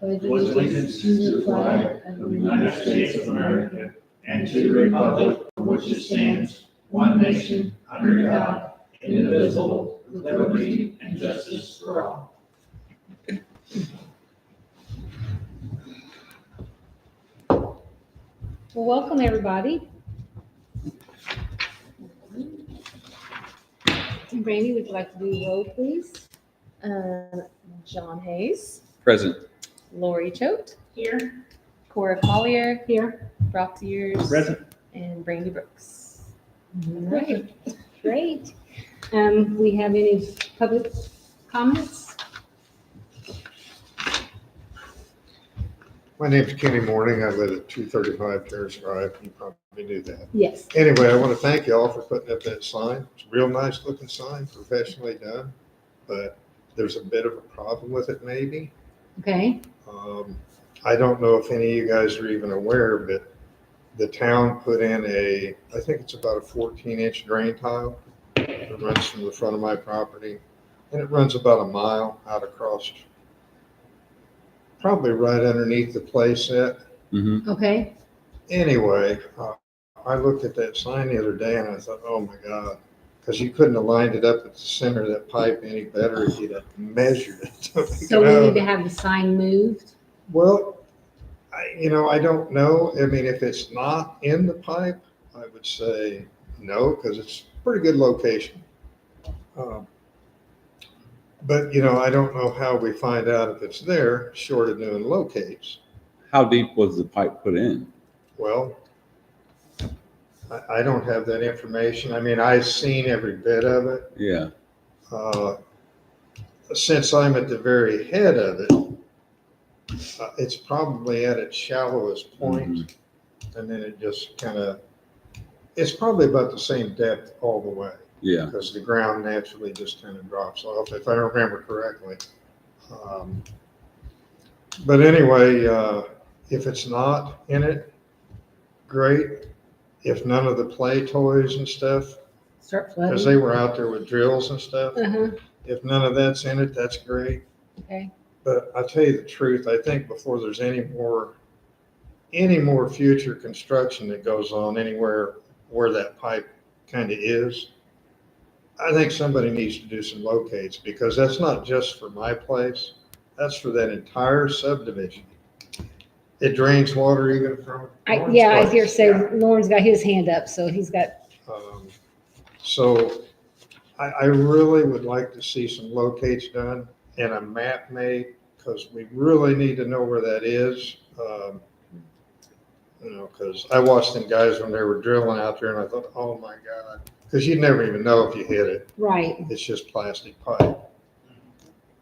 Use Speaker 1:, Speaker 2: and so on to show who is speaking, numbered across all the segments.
Speaker 1: pledge allegiance to the flag of the United States of America and to the republic for which it stands, one nation, under God, indivisible, with liberty and justice for all.
Speaker 2: Well, welcome, everybody. Randy, would you like to do roll, please? Uh, John Hayes,
Speaker 3: Present.
Speaker 2: Lori Choate. Here. Cora Collier. Here. Brock Sears.
Speaker 3: Present.
Speaker 2: And Brandy Brooks. All right, great. Um, we have any public comments?
Speaker 4: My name's Kenny Morning. I live at two thirty-five Terrace Drive. You probably knew that.
Speaker 2: Yes.
Speaker 4: Anyway, I want to thank y'all for putting up that sign. It's a real nice looking sign, professionally done. But there's a bit of a problem with it maybe.
Speaker 2: Okay,
Speaker 4: Um, I don't know if any of you guys are even aware, but the town put in a, I think it's about a fourteen inch drain tile. It runs from the front of my property and it runs about a mile out across, probably right underneath the playset.
Speaker 3: Mm-hmm.
Speaker 2: okay,
Speaker 4: Anyway, uh, I looked at that sign the other day and I thought, oh my God, because you couldn't have lined it up at the center of that pipe any better if you'd have measured it. Oh
Speaker 2: so we need to have the sign moved?
Speaker 4: Well, I, you know, I don't know. I mean, if it's not in the pipe, I would say no, because it's a pretty good location. Um, But, you know, I don't know how we find out if it's there, short of doing locates.
Speaker 3: How deep was the pipe put in?
Speaker 4: Well, I, I don't have that information. I mean, I've seen every bit of it.
Speaker 3: Yeah.
Speaker 4: Uh, Since I'm at the very head of it, uh, it's probably at its shallowest point, and then it just kind of, it's probably about the same depth all the way,
Speaker 3: Yeah.
Speaker 4: because the ground naturally just kind of drops off, if I remember correctly. Um, But anyway, uh, if it's not in it, great. If none of the play toys and stuff,
Speaker 2: Start
Speaker 4: because
Speaker 2: flooding?
Speaker 4: they were out there with drills and stuff,
Speaker 2: Uh-huh,
Speaker 4: if none of that's in it, that's great.
Speaker 2: okay,
Speaker 4: But I'll tell you the truth, I think before there's any more, any more future construction that goes on anywhere where that pipe kind of is, I think somebody needs to do some locates because that's not just for my place. That's for that entire subdivision. It drains water even from.
Speaker 2: I,
Speaker 4: Lauren's
Speaker 2: yeah, I
Speaker 4: place.
Speaker 2: dare say Lauren's got his hand up, so he's got
Speaker 4: Um, So I, I really would like to see some locates done and a map made, because we really need to know where that is. Um, You know, because I watched them guys when they were drilling out there and I thought, oh my God, because you never even know if you hit it.
Speaker 2: Right.
Speaker 4: It's just plastic pipe.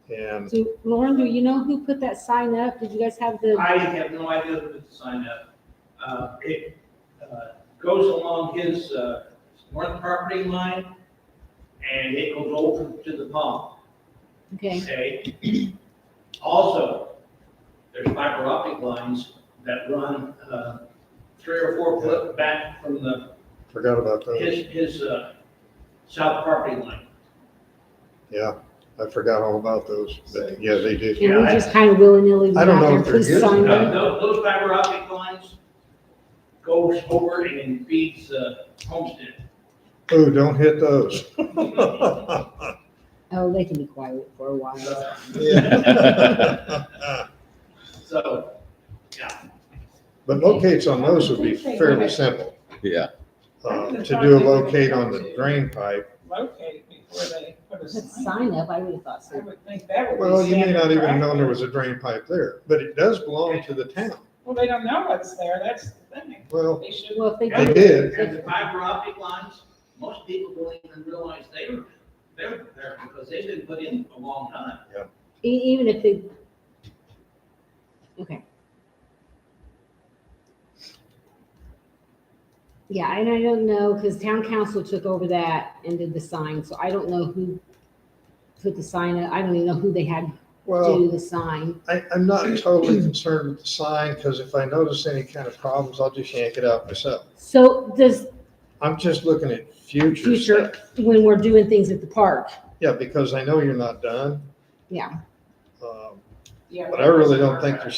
Speaker 4: And
Speaker 2: So Lauren, do you know who put that sign up? Did you guys have the,
Speaker 5: I have no idea who to sign up. Uh, It uh, goes along his uh, north property line, and it goes over to the pond,
Speaker 2: okay,
Speaker 5: okay? Also, there's fiber optic lines that run uh, three or four foot back from the,
Speaker 4: forgot about those.
Speaker 5: his, his uh, south property line.
Speaker 4: Yeah, I forgot all about those. But Yeah, they do.
Speaker 2: and we
Speaker 5: I-
Speaker 2: just kind of willy-nilly
Speaker 4: I
Speaker 2: went
Speaker 4: don't
Speaker 2: out
Speaker 4: know
Speaker 2: there,
Speaker 4: if they're
Speaker 2: please
Speaker 4: good or
Speaker 2: sign
Speaker 5: Those
Speaker 2: up.
Speaker 4: not.
Speaker 5: Uh, those fiber optic lines goes over and feeds uh, Homestead.
Speaker 4: Oh, don't hit those.
Speaker 2: Oh, they can be quiet for a while.
Speaker 5: Uh,
Speaker 4: But
Speaker 5: So,
Speaker 4: locates on those would be fairly simple.
Speaker 3: Yeah.
Speaker 4: Uh, To do a locate on the drain pipe,
Speaker 6: locate before they put a
Speaker 2: Put
Speaker 6: sign.
Speaker 2: sign up, I would have thought
Speaker 6: I
Speaker 2: so.
Speaker 6: would think that would be.
Speaker 4: well, you may
Speaker 6: standard
Speaker 4: not even know there was
Speaker 6: practice.
Speaker 4: a drain pipe there, but it does belong to the town.
Speaker 6: Well, they don't know what's there, that's the thing.
Speaker 4: Well,
Speaker 6: They should,
Speaker 2: Well, if they
Speaker 4: they
Speaker 2: did,
Speaker 4: did,
Speaker 5: And the fiber optic lines, most people don't even realize they were, they were there because they've been put in a long time.
Speaker 2: e- even if they, okay. Yeah, and I don't know, because town council took over that and did the sign, so I don't know who put the sign up. I don't even know who they had
Speaker 4: well,
Speaker 2: do the sign.
Speaker 4: I, I'm not totally concerned with the sign, because if I notice any kind of problems, I'll just yank it out myself.
Speaker 2: So does,
Speaker 4: I'm just looking at future
Speaker 2: future
Speaker 4: stuff.
Speaker 2: when we're doing things at the park.
Speaker 4: Yeah, because I know you're not done.
Speaker 2: Yeah.
Speaker 4: Um,
Speaker 6: yeah.
Speaker 4: But I really don't think there's